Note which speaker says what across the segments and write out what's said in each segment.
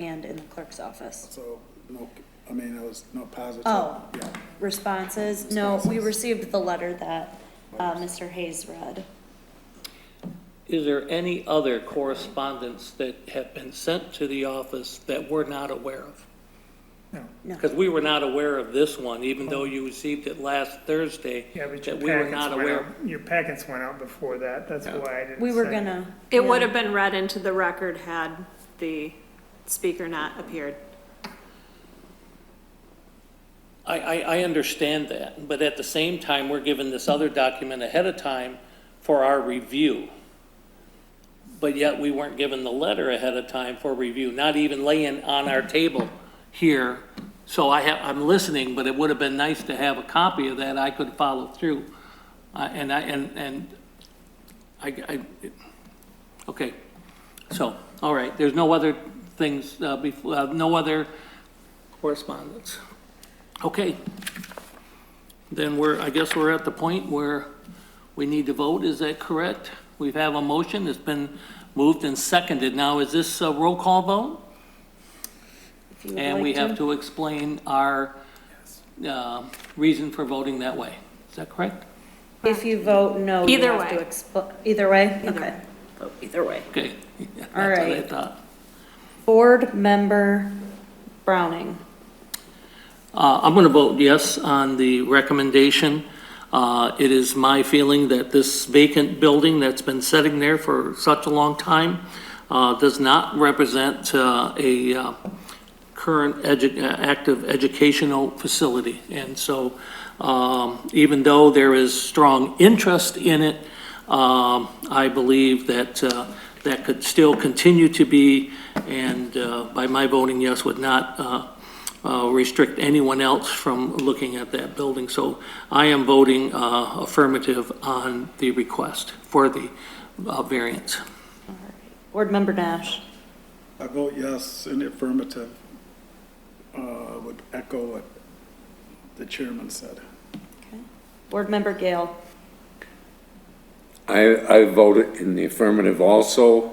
Speaker 1: and in the clerk's office.
Speaker 2: So, no, I mean, it was no positive.
Speaker 1: Oh.
Speaker 2: Yeah,
Speaker 1: Responses, no, we
Speaker 2: Responses.
Speaker 1: received the letter that uh, Mr. Hayes read.
Speaker 3: Is there any other correspondence that have been sent to the office that we're not aware of?
Speaker 1: No.
Speaker 3: Because we were not aware of this one, even though you received it last Thursday.
Speaker 4: Yeah, but your
Speaker 3: That we were
Speaker 4: packets
Speaker 3: not
Speaker 4: went out,
Speaker 3: aware.
Speaker 4: your packets went out before that, that's
Speaker 3: Yeah.
Speaker 4: why I didn't.
Speaker 1: We were
Speaker 4: send-
Speaker 1: gonna.
Speaker 5: It would have been read into the record had the speaker not appeared.
Speaker 3: I, I, I understand that, but at the same time, we're given this other document ahead of time for our review. But yet we weren't given the letter ahead of time for review, not even laying on our table here. So I have, I'm listening, but it would have been nice to have a copy of that I could follow through. I and I, and, and I, I, it- okay. So, all right, there's no other things, uh, before, uh, no other correspondence. Okay. Then we're, I guess we're at the point where we need to vote, is that correct? We have a motion, it's been moved and seconded. Now, is this a roll call vote?
Speaker 1: if you would
Speaker 3: And
Speaker 1: like
Speaker 3: we have to explain our uh, reason for voting that way. Is that correct?
Speaker 1: If you vote no, you
Speaker 5: Either
Speaker 1: have to
Speaker 5: way.
Speaker 1: expl, either way?
Speaker 5: Either
Speaker 1: Okay. Vote Either way.
Speaker 3: Okay. That's what
Speaker 1: All
Speaker 3: I
Speaker 1: right.
Speaker 3: thought.
Speaker 1: Board member Browning.
Speaker 3: Uh, I'm going to vote yes on the recommendation. Uh, It is my feeling that this vacant building that's been sitting there for such a long time uh, does not represent uh, a uh, current edu- uh, active educational facility. And so um, even though there is strong interest in it, um, I believe that uh, that could still continue to be, and uh, by my voting yes would not uh, uh, restrict anyone else from looking at that building. So I am voting uh, affirmative on the request for the uh, variance.
Speaker 1: Board member Nash.
Speaker 2: I vote yes in the affirmative, uh, would echo what the chairman said.
Speaker 1: Board member Gale.
Speaker 6: I, I voted in the affirmative also.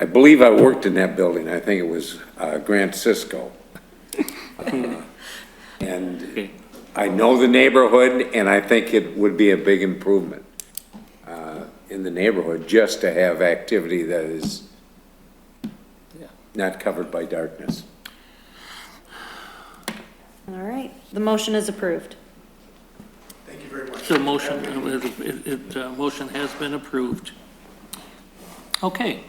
Speaker 6: I believe I worked in that building, I think it was uh, Grant Cisco. Uh, And I know the neighborhood, and I think it would be a big improvement uh, in the neighborhood, just to have activity that is
Speaker 3: Yeah.
Speaker 6: not covered by darkness.
Speaker 1: All right, the motion is approved.
Speaker 3: The motion, it, it, uh, motion has been approved. Okay.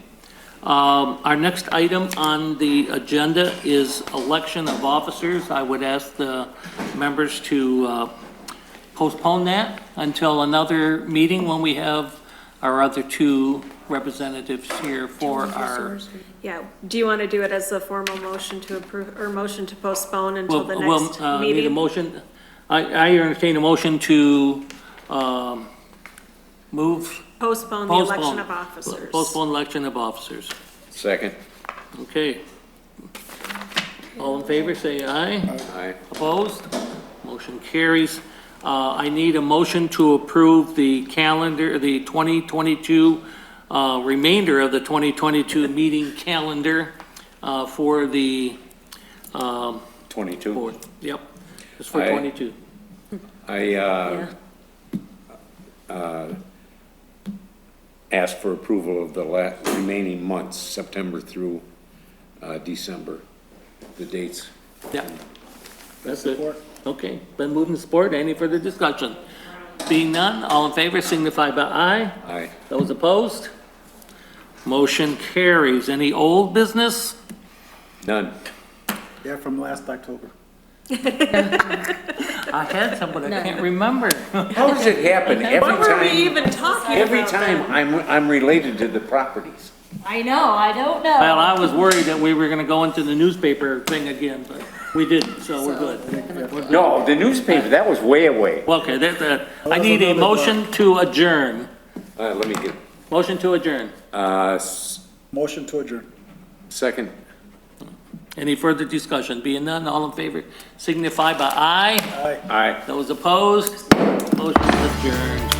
Speaker 3: Um, our next item on the agenda is election of officers. I would ask the members to, uh, postpone that until another meeting when we have our other two representatives here for our.
Speaker 5: Yeah, do you want to do it as a formal motion to approve, or motion to postpone until
Speaker 3: Well,
Speaker 5: the
Speaker 3: well,
Speaker 5: next
Speaker 3: uh, Need a
Speaker 5: meeting?
Speaker 3: motion, I, I entertain a motion to, um, move
Speaker 5: Postpone the
Speaker 3: Postpone.
Speaker 5: election of officers.
Speaker 3: Postpone election of officers.
Speaker 6: Second?
Speaker 3: Okay. All in favor, say aye.
Speaker 6: Aye.
Speaker 3: Opposed? Motion carries. Uh, I need a motion to approve the calendar, the 2022, uh, remainder of the 2022 meeting calendar uh, for the um,
Speaker 6: Twenty-two?
Speaker 3: board. Yep, it's for
Speaker 6: Aye.
Speaker 3: 22.
Speaker 6: I, uh, ask for approval of the la- remaining months, September through uh, December, the dates.
Speaker 3: Yeah. That's it. Okay, been moved and supported. Any further discussion? Being none, all in favor signify by aye.
Speaker 6: Aye.
Speaker 3: Those opposed? Motion carries. Any old business?
Speaker 6: None.
Speaker 2: Yeah, from last October.
Speaker 3: I had some, but I can't remember.
Speaker 6: How does it happen every
Speaker 5: What were we
Speaker 6: time?
Speaker 5: even talking about?
Speaker 6: Every time
Speaker 5: then?
Speaker 6: I'm, I'm related to the properties.
Speaker 1: I know, I don't
Speaker 3: Well, I was worried that we were gonna go into the newspaper thing again, but we didn't, so we're good.
Speaker 6: No, the newspaper, that was way away.
Speaker 3: Well, Okay, that, that, I need a motion to adjourn.
Speaker 6: Uh, let me get,
Speaker 3: Motion to adjourn.
Speaker 6: uh, s-
Speaker 2: Motion to adjourn.
Speaker 6: second,
Speaker 3: Any further discussion? Being none, all in favor signify by aye.
Speaker 6: aye.
Speaker 3: Those opposed? Motion is adjourned.